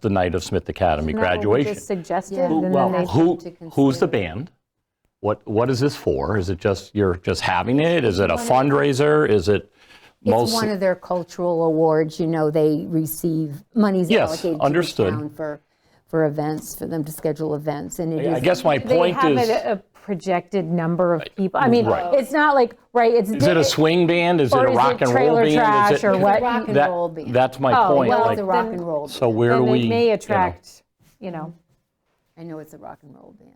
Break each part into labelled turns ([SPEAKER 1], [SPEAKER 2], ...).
[SPEAKER 1] the night of Smith Academy
[SPEAKER 2] Isn't that what we
[SPEAKER 1] graduation.
[SPEAKER 2] just suggested?
[SPEAKER 3] Yeah.
[SPEAKER 2] And then
[SPEAKER 1] Well,
[SPEAKER 2] they-
[SPEAKER 1] who,
[SPEAKER 3] to consider.
[SPEAKER 1] who's the band? What, what is this for? Is it just, you're just having it? Is it a fundraiser? Is it
[SPEAKER 3] It's one
[SPEAKER 1] mostly?
[SPEAKER 3] of their cultural awards, you know, they receive, money's
[SPEAKER 1] Yes,
[SPEAKER 3] allocated to the
[SPEAKER 1] understood.
[SPEAKER 3] town for, for events, for them to schedule events, and it
[SPEAKER 1] I
[SPEAKER 3] is,
[SPEAKER 1] guess my
[SPEAKER 2] They
[SPEAKER 1] point
[SPEAKER 2] have uh,
[SPEAKER 1] is,
[SPEAKER 2] a a projected number of people. I mean,
[SPEAKER 1] Right.
[SPEAKER 2] it's not like, right, it's.
[SPEAKER 1] is it a swing band? Is it a
[SPEAKER 2] Or is it
[SPEAKER 1] rock and roll
[SPEAKER 2] trailer
[SPEAKER 1] band? Is
[SPEAKER 2] trash
[SPEAKER 1] it-
[SPEAKER 2] or
[SPEAKER 3] It's a
[SPEAKER 2] what?
[SPEAKER 3] rock and
[SPEAKER 1] that-
[SPEAKER 3] roll band.
[SPEAKER 1] That's my
[SPEAKER 2] Oh,
[SPEAKER 1] point.
[SPEAKER 2] well,
[SPEAKER 3] well,
[SPEAKER 1] like,
[SPEAKER 3] the rock
[SPEAKER 2] then-
[SPEAKER 3] and roll. band.
[SPEAKER 1] So where do
[SPEAKER 2] Then
[SPEAKER 1] we?
[SPEAKER 2] it
[SPEAKER 1] you
[SPEAKER 2] may
[SPEAKER 1] know,
[SPEAKER 2] attract, you know,
[SPEAKER 3] I know it's a rock and roll band.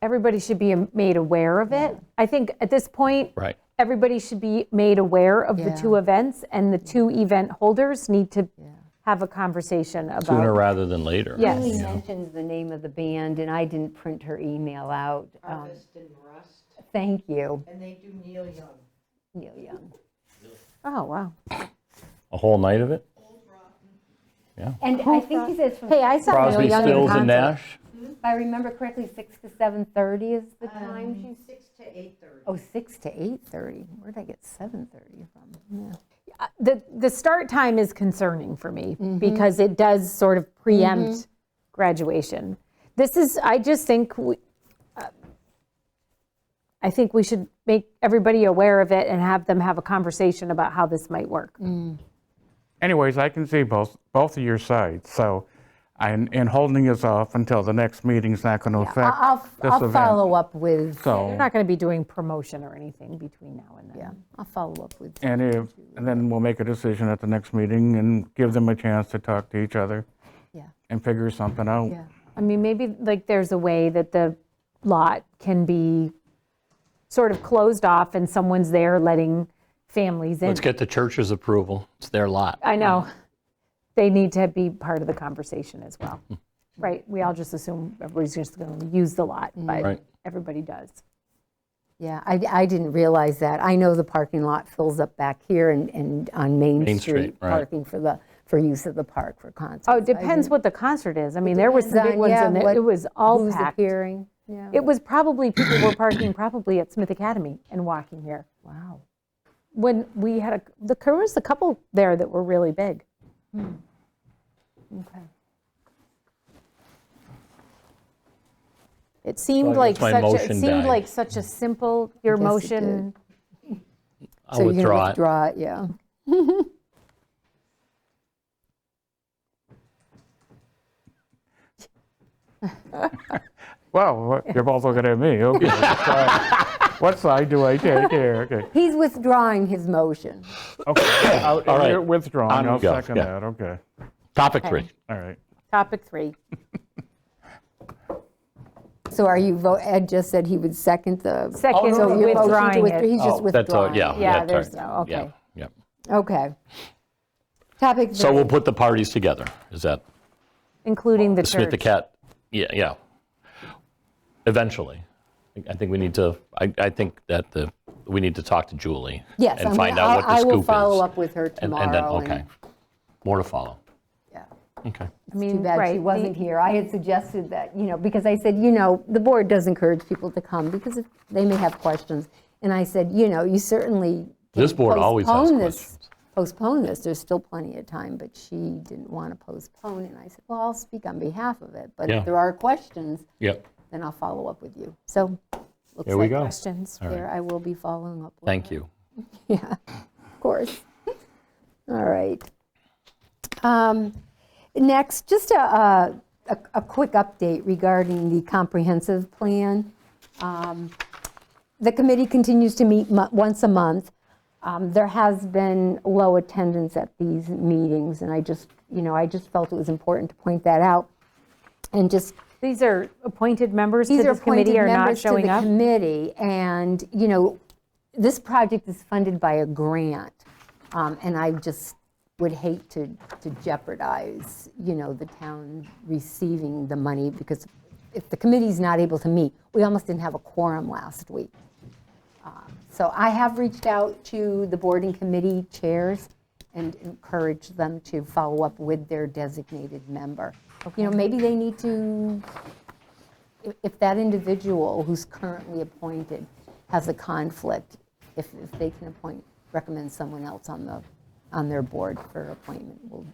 [SPEAKER 2] everybody should be made aware of it. I think at this point.
[SPEAKER 1] Right.
[SPEAKER 2] Everybody should be made aware of the
[SPEAKER 3] Yeah.
[SPEAKER 2] two events and the two event holders need to have a conversation
[SPEAKER 1] Sooner
[SPEAKER 2] about.
[SPEAKER 1] rather than later.
[SPEAKER 2] Yes.
[SPEAKER 4] He mentions the name of the band, and I didn't print her email out. Um,
[SPEAKER 5] Harvest and Rust,
[SPEAKER 4] Thank you,
[SPEAKER 5] and they do Neil Young.
[SPEAKER 4] Neil Young.
[SPEAKER 2] Oh, wow.
[SPEAKER 1] A whole night of it?
[SPEAKER 4] And I think he says, from-
[SPEAKER 3] Hey, I saw Neil
[SPEAKER 1] Crosby,
[SPEAKER 3] Young in
[SPEAKER 1] Stills,
[SPEAKER 3] concert.
[SPEAKER 1] and Nash?
[SPEAKER 4] if I remember correctly, 6 to 7:30 is the
[SPEAKER 2] Um,
[SPEAKER 4] time she's,
[SPEAKER 5] Six to eight thirty.
[SPEAKER 4] oh, 6 to 8:30. Where'd I get 7:30 from?
[SPEAKER 2] The, the start time is concerning for me because it does sort of preempt graduation. This is, I just think, we- uh, I think we should make everybody aware of it and have them have a conversation about how this might work.
[SPEAKER 6] Anyways, I can see both, both of your sides, so, and, and holding us off until the next meeting's not going to affect
[SPEAKER 3] I'll,
[SPEAKER 6] this
[SPEAKER 3] I'll
[SPEAKER 6] event.
[SPEAKER 3] follow up with,
[SPEAKER 2] We're
[SPEAKER 6] So,
[SPEAKER 2] not going to be doing promotion or anything between now and then.
[SPEAKER 3] yeah, I'll follow up with,
[SPEAKER 6] and if, and then we'll make a decision at the next meeting and give them a chance to talk to each other
[SPEAKER 3] yeah,
[SPEAKER 6] and figure something out.
[SPEAKER 3] yeah.
[SPEAKER 2] I mean, maybe like there's a way that the lot can be sort of closed off and someone's there letting families in.
[SPEAKER 1] Let's get the church's approval. It's their lot.
[SPEAKER 2] I know. They need to be part of the conversation as well. Right? We all just assume everybody's just going to use the lot, but
[SPEAKER 1] Right.
[SPEAKER 2] everybody does.
[SPEAKER 3] Yeah, I, I didn't realize that. I know the parking lot fills up back here and, and on Main
[SPEAKER 1] Main
[SPEAKER 3] Street,
[SPEAKER 1] Street, right.
[SPEAKER 3] parking for the, for use of the park for concerts.
[SPEAKER 2] Oh, it depends what the concert is. I mean, there was some
[SPEAKER 3] Depends
[SPEAKER 2] big
[SPEAKER 3] on,
[SPEAKER 2] ones
[SPEAKER 3] yeah,
[SPEAKER 2] and it-
[SPEAKER 3] what-
[SPEAKER 2] it was all
[SPEAKER 3] Who's
[SPEAKER 2] packed.
[SPEAKER 3] appearing, yeah,
[SPEAKER 2] It was probably, people were parking probably at Smith Academy and walking here.
[SPEAKER 3] wow.
[SPEAKER 2] When we had, a the there was a couple there that were really big.
[SPEAKER 3] Hmm. Okay.
[SPEAKER 2] It seemed
[SPEAKER 1] So I
[SPEAKER 2] like
[SPEAKER 1] guess my
[SPEAKER 2] such, a- it
[SPEAKER 1] motion
[SPEAKER 2] seemed
[SPEAKER 1] died.
[SPEAKER 2] like such a simple, your
[SPEAKER 3] Yes, it
[SPEAKER 2] motion,
[SPEAKER 1] I'll
[SPEAKER 3] So you're going to
[SPEAKER 1] withdraw it.
[SPEAKER 3] withdraw it, yeah.
[SPEAKER 6] Well, what- you're both looking at me, okay. which side- What side do I take here? Okay,
[SPEAKER 3] He's withdrawing his motion.
[SPEAKER 6] okay. I'll-
[SPEAKER 1] All right.
[SPEAKER 6] You're
[SPEAKER 1] On
[SPEAKER 6] withdrawing,
[SPEAKER 1] we
[SPEAKER 6] I'll
[SPEAKER 1] go,
[SPEAKER 6] second
[SPEAKER 1] yeah.
[SPEAKER 6] that, okay,
[SPEAKER 1] Topic three.
[SPEAKER 6] all right.
[SPEAKER 2] topic three.
[SPEAKER 3] So are you, vo- Ed just said he would second the.
[SPEAKER 2] Second,
[SPEAKER 3] So your motion to
[SPEAKER 2] withdrawing
[SPEAKER 3] withdraw-
[SPEAKER 2] it.
[SPEAKER 3] He's just
[SPEAKER 1] Oh, that's all-
[SPEAKER 3] withdrawing.
[SPEAKER 1] Yeah.
[SPEAKER 3] it.
[SPEAKER 2] Yeah,
[SPEAKER 1] that's
[SPEAKER 2] there's
[SPEAKER 1] right.
[SPEAKER 2] no- okay.
[SPEAKER 1] Yeah, yeah.
[SPEAKER 3] Okay. Topic three.
[SPEAKER 1] So we'll put the parties together. Is that
[SPEAKER 2] Including the
[SPEAKER 1] Smith the
[SPEAKER 2] church.
[SPEAKER 1] Cat? Yeah, yeah. Eventually. I- I think we need to, I, I think that the, we need to talk to Julie.
[SPEAKER 3] Yes, I'm
[SPEAKER 1] And
[SPEAKER 3] gonna-
[SPEAKER 1] find out what
[SPEAKER 3] I
[SPEAKER 1] the
[SPEAKER 3] I
[SPEAKER 1] scoop is.
[SPEAKER 3] will follow up with her
[SPEAKER 1] And-
[SPEAKER 3] tomorrow.
[SPEAKER 1] And then, okay. More to follow.
[SPEAKER 3] yeah.
[SPEAKER 1] Okay.
[SPEAKER 2] I mean,
[SPEAKER 3] Too bad
[SPEAKER 2] right,
[SPEAKER 3] she
[SPEAKER 2] the-
[SPEAKER 3] wasn't here. I had suggested that, you know, because I said, you know, the board does encourage people to come because if- they may have questions. And I said, you know, you certainly. can
[SPEAKER 1] This board always has
[SPEAKER 3] postpone this-
[SPEAKER 1] questions.
[SPEAKER 3] Postpone this, there's still plenty of time, but she didn't want to postpone. And I said, well, I'll speak on behalf of it, but
[SPEAKER 1] Yeah.
[SPEAKER 3] if there are questions,
[SPEAKER 1] Yep.
[SPEAKER 3] then I'll follow up with you. So, looks
[SPEAKER 1] There we
[SPEAKER 3] like
[SPEAKER 1] go.
[SPEAKER 3] questions there. I will be following up with
[SPEAKER 1] Thank you.
[SPEAKER 3] yeah, of course. All right. Um, Next, just a, a, a- a quick update regarding the comprehensive plan. Um, The committee continues to meet mo- once a month. Um, There has been low attendance at these meetings, and I just, you know, I just felt it was important to point that out. And just
[SPEAKER 2] These are appointed members to
[SPEAKER 3] these are
[SPEAKER 2] this
[SPEAKER 3] appointed
[SPEAKER 2] committee are not
[SPEAKER 3] members to
[SPEAKER 2] showing
[SPEAKER 3] the
[SPEAKER 2] up.
[SPEAKER 3] committee, and, you know, this project is funded by a grant, um, and I just would hate to to jeopardize, you know, the town receiving the money, because if the committee's not able to meet, we almost didn't have a quorum last week. Um, So I have reached out to the board and committee chairs and encouraged them to follow up with their designated member. You know, maybe they need to, if- if that individual who's currently appointed has a conflict, if if they can appoint, recommend someone else on the, on their board for appointment, we'll